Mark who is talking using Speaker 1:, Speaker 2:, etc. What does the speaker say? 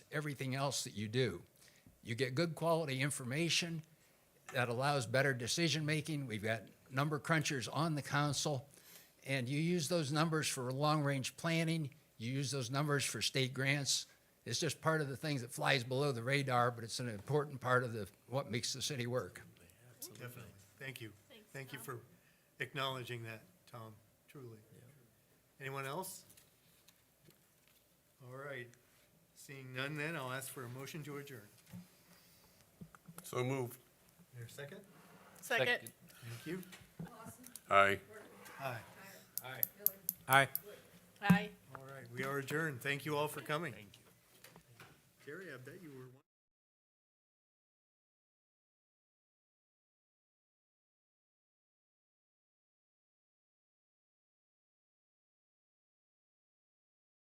Speaker 1: everything else that you do. You get good quality information that allows better decision making. We've got number crunchers on the council, and you use those numbers for long range planning. You use those numbers for state grants. It's just part of the things that flies below the radar, but it's an important part of the what makes the city work.
Speaker 2: Definitely. Thank you. Thank you for acknowledging that, Tom, truly. Anyone else? All right. Seeing none then, I'll ask for a motion to adjourn.
Speaker 3: So moved.
Speaker 2: Your second?
Speaker 4: Second.
Speaker 2: Thank you.
Speaker 3: Aye.
Speaker 2: Aye.
Speaker 5: Aye.
Speaker 4: Aye.
Speaker 2: All right, we are adjourned. Thank you all for coming. Terry, I bet you were one.